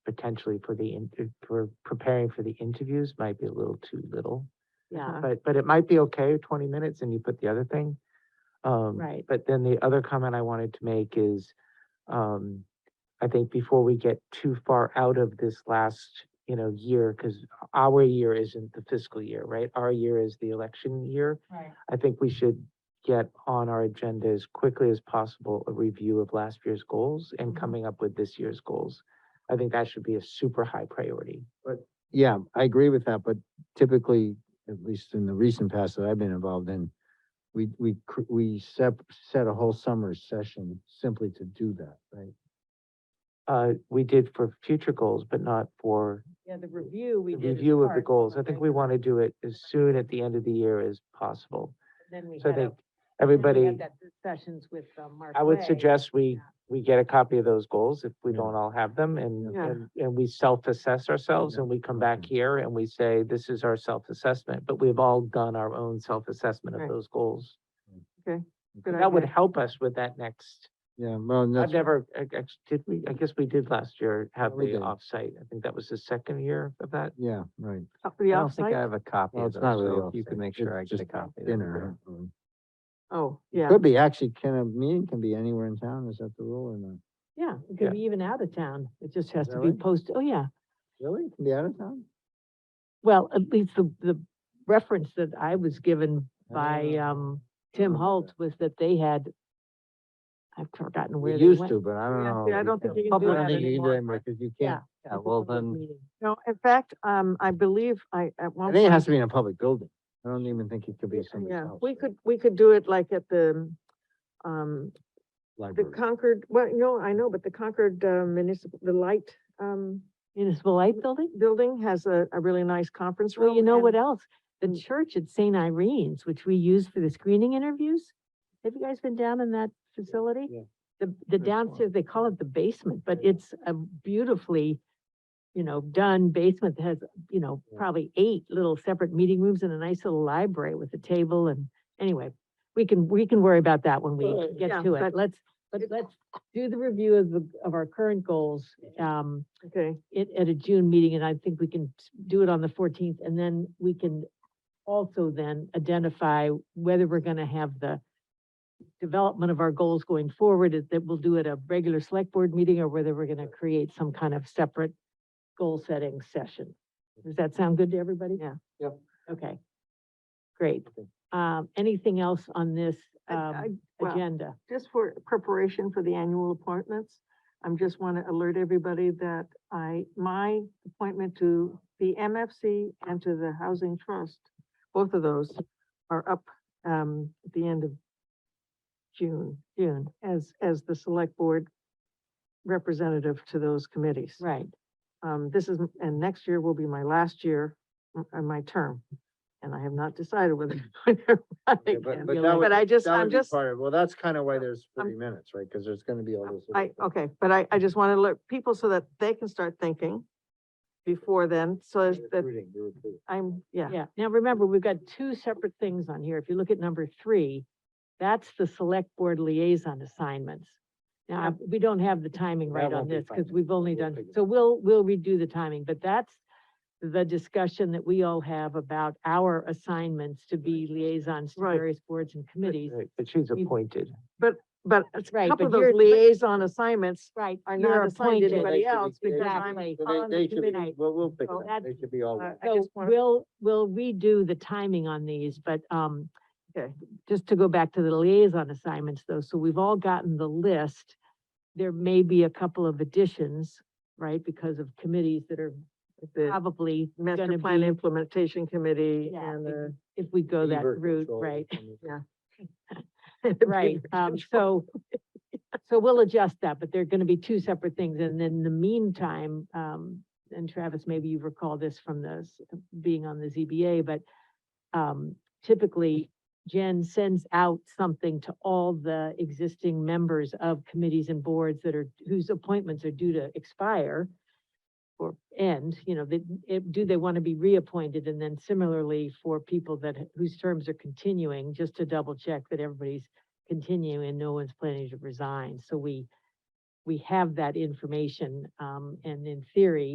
potentially for the, in- uh, for preparing for the interviews might be a little too little. Yeah, But, but it might be okay, twenty minutes, and you put the other thing. Um, Right. But then the other comment I wanted to make is, um, I think before we get too far out of this last, you know, year, because our year isn't the fiscal year, right? Our year is the election year. Right. I think we should get on our agenda as quickly as possible, a review of last year's goals and Mhm. coming up with this year's goals. I think that should be a super high priority. Yeah, I agree with that, but typically, at least in the recent past that I've been involved in, we, we, cr- we set, set a whole summer session simply to do that, right? Uh, we did for future goals, but not for yeah, the review we the did. as review of part the of goals. I our think we regular- want to do it as soon at the end of the year as possible. Then we So I had a- Mm-hmm. think then we everybody, had that discussions with uh, Mark. I would Ray. suggest we, yeah. we get a copy of those goals if we Yeah. don't all have them and, Yeah. and, and we self-assess ourselves Yeah. and we come back Okay. here and we say, this is our self-assessment, but we've all done our own self-assessment of Right. those goals. Good That would idea. help us with that next, Yeah, well, and I've that's, never, I guess, did we, I guess we did last year have we the did. offsite. I think that was the second year of that. yeah, right. The I don't think I offsite? have a copy Well, of it's those, not really so off if you can site, make sure I it's get a just copy. that'd be Dinner. great. or- Oh, yeah, Could be, actually, can a meeting can be anywhere in town, is that the rule or not? yeah, it Yeah. could be even out of town. It just has to be Really? posted. Oh, yeah. Really? It Can be out of town? Well, at least the, the reference that I was given by, Ah, um, Tim remember Holt was that they had, I've forgotten We where they used went. to, but I don't Yeah, know. see, I don't think you can do public that meeting anymore. anymore, Because you Yeah. can't, Yeah, It's a well public then, meeting. No, in fact, um, I believe I, at I one think it has point, to be in a public building. I don't even think it could be y- somebody's yeah, house. we could, we could do it like at the, um, the Library. Concord, well, no, I know, but the Concord uh, municipal, the light, um, Municipal Light Building? building has a, a really nice conference room. Well, you know and what else? The Mm. church at St. Irene's, which we use for the screening interviews. Have you guys been down in that facility? yeah. The, the That's fine. downstairs, they call it the basement, but it's a beautifully, you know, done basement that has, you know, Yeah. probably eight little separate meeting rooms and a nice little library with a table and, anyway, we can, we can worry about that when we Right. get Yeah, to it. but Let's, but it- let's do the review of the, of our current goals, um, Okay, it at a June meeting, and I think we can s- do it on the fourteenth, and then we can also then identify whether we're gonna have the development of our goals going forward, is that we'll do at a regular select board meeting, or whether we're gonna create some kind of separate goal-setting session. Does that sound good to everybody? Yeah. Yep. Okay, great. Okay. Um, anything else on this, I- I- um, well, agenda? just for preparation for the annual appointments, I'm just want to alert everybody that I, my appointment to the MFC and to the Housing Trust, both of those are up, um, at the end of June. June, as, as the select board representative to those committees. right. Um, this is, and next year will be my last year, m- uh, my term. And I have not decided whether I'm going to run Okay, again. but that but would- I just- that I'm would be just- part of- Well, that's kind of why there's I'm- forty minutes, right? Because there's gonna be all this. I, oh, okay, but I, I just want to let people so that they can start thinking before then, so as that Recruiting, you're recruiting. I'm, yeah. Yeah, now remember, we've got two separate things on here. If you look at number three, that's the select board liaison assignments. Now, I- we don't have the timing That right on won't be this because fine. we've only We'll done, figure it so we'll, we'll redo the timing, but that's the discussion that we all have about our assignments to be liaisons to Right. various boards and committees. Right, But she's We- appointed. But a Right, but couple of those you're- but- liaison assignments Right. are you're not assigned to appointed. anybody They should be- else because I'm, Exactly. So they- on they the should be- committee. We'll, we'll pick So it up. that's- They should be all. uh, I So just wanna- we'll, we'll redo the timing on these, but, um, Okay. just to go back to the liaison assignments though, so we've all gotten the list. There may be a couple of additions, right, because of committees that are the probably Master gonna Plan be, Implementation Committee Yeah, and if the. if we go that Beaver route, control right? and- Right, um, so, so we'll adjust that, but they're gonna be two separate things, and then in the meantime, um, and Travis, maybe you recall this from this, being on the ZBA, but um, typically Jen sends out something to all the existing members of committees and boards that are, whose appointments are due to expire or end, you know, that, if- do they want to be reappointed? And then similarly for people that, whose terms are continuing, just to double check that everybody's continuing and no one's planning to resign. So we, we have that information, um, and in theory,